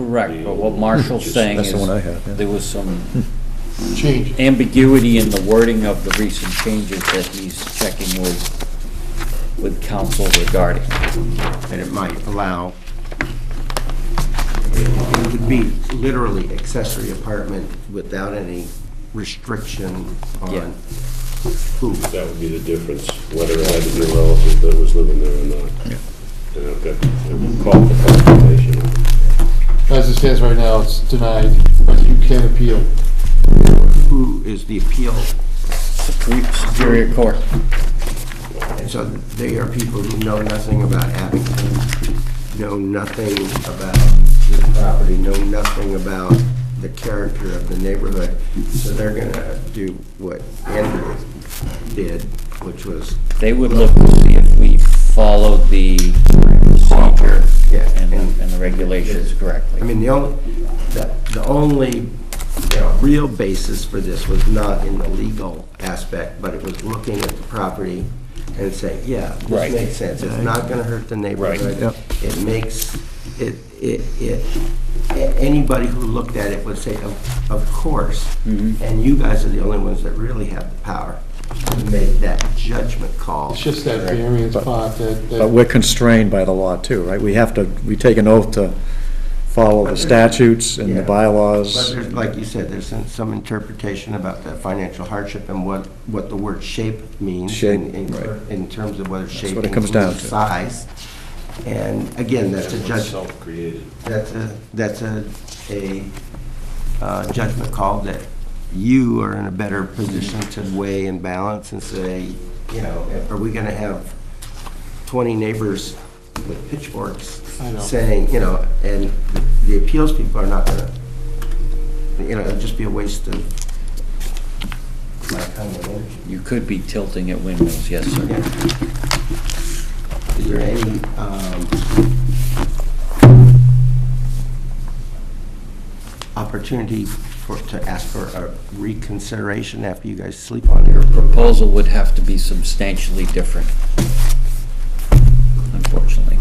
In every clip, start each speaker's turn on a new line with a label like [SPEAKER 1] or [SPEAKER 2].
[SPEAKER 1] Correct, but what Marshall's saying
[SPEAKER 2] That's
[SPEAKER 1] is,
[SPEAKER 2] the one I had, yeah.
[SPEAKER 1] there was some
[SPEAKER 3] change.
[SPEAKER 1] ambiguity in the wording of the recent changes that he's checking with, with council regarding.
[SPEAKER 4] and it might allow, it would be literally accessory apartment without any restriction
[SPEAKER 1] Yeah.
[SPEAKER 4] on who.
[SPEAKER 5] That would be the difference, whether it had to be a relative that was living there or not. And I've got, I've called for consultation.
[SPEAKER 3] As it stands right now, it's denied, but you can appeal.
[SPEAKER 4] Who is the appeal?
[SPEAKER 1] Supre- Superior Court,
[SPEAKER 4] And so they are people who know nothing about Abington, know nothing about the property, know nothing about the character of the neighborhood. So they're gonna do what Andrew did, which was
[SPEAKER 1] they would look to see if we followed the procedure
[SPEAKER 4] Yeah,
[SPEAKER 1] and,
[SPEAKER 4] and-
[SPEAKER 1] the- and the regulations correctly.
[SPEAKER 4] I mean, the only, the, the only, you know, real basis for this was not in the legal aspect, but it was looking at the property and saying, yeah,
[SPEAKER 1] Right.
[SPEAKER 4] this makes sense. It's not gonna hurt the neighborhood.
[SPEAKER 2] Yep.
[SPEAKER 4] It makes, it, it, it, a- anybody who looked at it would say, of, of course.
[SPEAKER 3] Mm-hmm.
[SPEAKER 4] And you guys are the only ones that really have the power to make that judgment call.
[SPEAKER 3] It's just that variance
[SPEAKER 2] But-
[SPEAKER 3] part that,
[SPEAKER 2] But
[SPEAKER 3] that,
[SPEAKER 2] we're constrained by the law too, right? We have to, we take an oath to follow the statutes and the
[SPEAKER 4] Yeah. But
[SPEAKER 2] bylaws.
[SPEAKER 4] there's, like you said, there's some- some interpretation about the financial hardship and what, what the word shape means.
[SPEAKER 2] Shape,
[SPEAKER 4] in- in-
[SPEAKER 2] right.
[SPEAKER 4] In terms of whether shape.
[SPEAKER 2] what it comes down
[SPEAKER 4] includes
[SPEAKER 2] to.
[SPEAKER 4] Size. And again, that's a
[SPEAKER 5] That's
[SPEAKER 4] judge,
[SPEAKER 5] Self-created.
[SPEAKER 4] that's a, that's a, a uh, judgment call that you are in a better position to weigh and balance and say, you know, are we gonna have twenty neighbors with pitchforks
[SPEAKER 3] I know.
[SPEAKER 4] saying, you know, and the appeals people are not gonna, you know, it'd just be a waste of my time and energy.
[SPEAKER 1] You could be tilting at windmills, yes, sir.
[SPEAKER 4] Yeah. Is there any, um, opportunity for, to ask for a reconsideration after you guys sleep on your proposal?
[SPEAKER 1] Proposal would have to be substantially different, unfortunately.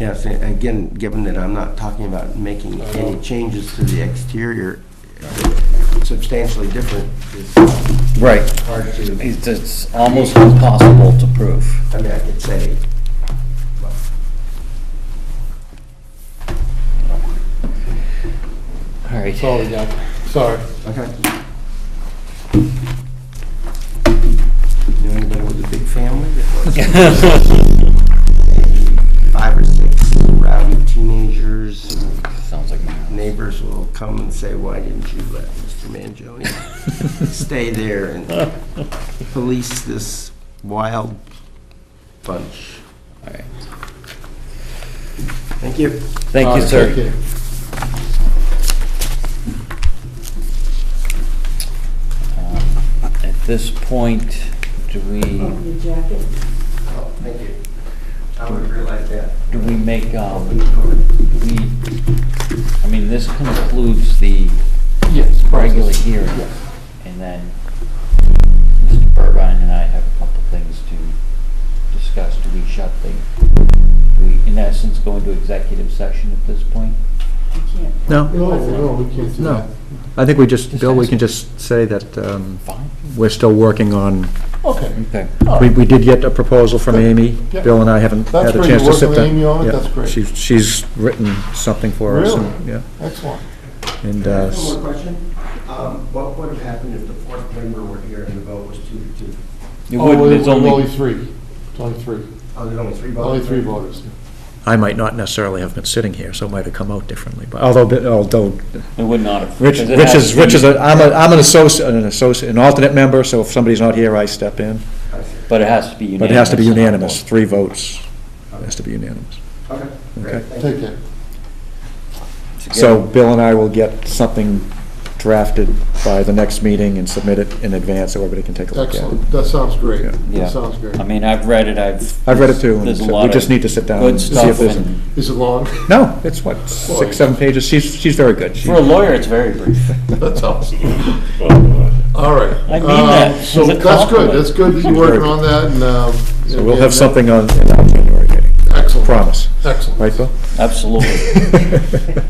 [SPEAKER 4] Yes, and again, given that I'm not talking about making
[SPEAKER 3] I know.
[SPEAKER 4] any changes to the exterior substantially different, it's
[SPEAKER 1] Right.
[SPEAKER 4] hard to,
[SPEAKER 1] It's, it's almost impossible to prove.
[SPEAKER 4] I mean, I could say, well,
[SPEAKER 1] All right.
[SPEAKER 3] that's all we got. Sorry.
[SPEAKER 4] okay. You know anybody with a big family that wants to five or six rowdy teenagers,
[SPEAKER 1] Sounds like my house.
[SPEAKER 4] neighbors will come and say, why didn't you let Mr. Mangione stay there and police this wild bunch?
[SPEAKER 1] All right.
[SPEAKER 4] Thank you.
[SPEAKER 1] Thank you,
[SPEAKER 3] Uh,
[SPEAKER 1] sir. Um, At this point, do we,
[SPEAKER 4] Oh, Thank you. I would realize that.
[SPEAKER 1] do we make, um, do we, I mean, this concludes the
[SPEAKER 3] Yes,
[SPEAKER 1] regular
[SPEAKER 3] process.
[SPEAKER 1] hearing.
[SPEAKER 3] Yes.
[SPEAKER 1] And then Mr. Burbine and I have a couple things to discuss. Do we shut the, we, in essence, go into executive session at this point?
[SPEAKER 2] No,
[SPEAKER 3] No, no, we can't do that.
[SPEAKER 2] no. I think we just, Bill, we can just say that um,
[SPEAKER 1] Fine.
[SPEAKER 2] we're still working on,
[SPEAKER 3] Okay.
[SPEAKER 1] Okay.
[SPEAKER 3] all
[SPEAKER 2] we,
[SPEAKER 3] right.
[SPEAKER 2] we did get a proposal from Amy.
[SPEAKER 3] Yeah.
[SPEAKER 2] Bill and I haven't
[SPEAKER 3] That's
[SPEAKER 2] had a
[SPEAKER 3] great. You're
[SPEAKER 2] chance to sit down.
[SPEAKER 3] working with Amy on it?
[SPEAKER 2] Yeah.
[SPEAKER 3] That's great.
[SPEAKER 2] She's, she's written something for us. and-
[SPEAKER 3] Really?
[SPEAKER 2] Yeah,
[SPEAKER 3] Excellent.
[SPEAKER 2] and, uh,
[SPEAKER 4] One more question. Um, What would have happened if the fourth member were here and the vote was two to two?
[SPEAKER 1] It
[SPEAKER 3] Oh,
[SPEAKER 1] would, it's
[SPEAKER 3] well, Only
[SPEAKER 1] only,
[SPEAKER 3] three, It's only three,
[SPEAKER 4] Oh, there's only three votes?
[SPEAKER 3] only three voters.
[SPEAKER 2] I might not necessarily have been sitting here, so it might have come out differently, but although, although
[SPEAKER 1] it would not have.
[SPEAKER 2] Rich,
[SPEAKER 1] because it
[SPEAKER 2] Rich
[SPEAKER 1] has
[SPEAKER 2] is,
[SPEAKER 1] to
[SPEAKER 2] Rich is,
[SPEAKER 1] be-
[SPEAKER 2] a- I'm a, I'm an associate, an associate, an alternate member, so if somebody's not here, I step in.
[SPEAKER 4] I see.
[SPEAKER 1] But it has to be unanimous.
[SPEAKER 2] But it has to be
[SPEAKER 1] on all
[SPEAKER 2] unanimous,
[SPEAKER 1] boards.
[SPEAKER 2] three votes. It has to be unanimous.
[SPEAKER 4] Okay,
[SPEAKER 2] Okay.
[SPEAKER 4] great, thank you.
[SPEAKER 3] Take care.
[SPEAKER 2] So Bill and I will get something drafted by the next meeting and submit it in advance so everybody can take a look at it.
[SPEAKER 3] Excellent. That sounds great.
[SPEAKER 2] Yeah.
[SPEAKER 1] Yeah.
[SPEAKER 3] That sounds great.
[SPEAKER 1] I mean, I've read it, I've.
[SPEAKER 2] I've read it too, and
[SPEAKER 1] There's a
[SPEAKER 2] so
[SPEAKER 1] lot
[SPEAKER 2] we
[SPEAKER 1] of
[SPEAKER 2] just need to sit down
[SPEAKER 1] Good
[SPEAKER 2] and see if
[SPEAKER 1] stuff,
[SPEAKER 2] there's.
[SPEAKER 1] and
[SPEAKER 3] Is it long?
[SPEAKER 2] No, it's what, six, seven pages, she's, she's very good. She-
[SPEAKER 1] for a lawyer, it's very brief.
[SPEAKER 3] That's awesome.
[SPEAKER 5] Well, uh,
[SPEAKER 3] All right.
[SPEAKER 1] I mean
[SPEAKER 3] Um,
[SPEAKER 1] that as
[SPEAKER 3] So
[SPEAKER 1] a
[SPEAKER 3] that's good,
[SPEAKER 1] compliment.
[SPEAKER 3] that's good, that you're working on that, and, um.
[SPEAKER 2] So we'll
[SPEAKER 3] and
[SPEAKER 2] have something on, in our January meeting.
[SPEAKER 3] Excellent.
[SPEAKER 2] promise.
[SPEAKER 3] Excellent.
[SPEAKER 2] Right, Bill?
[SPEAKER 1] Absolutely.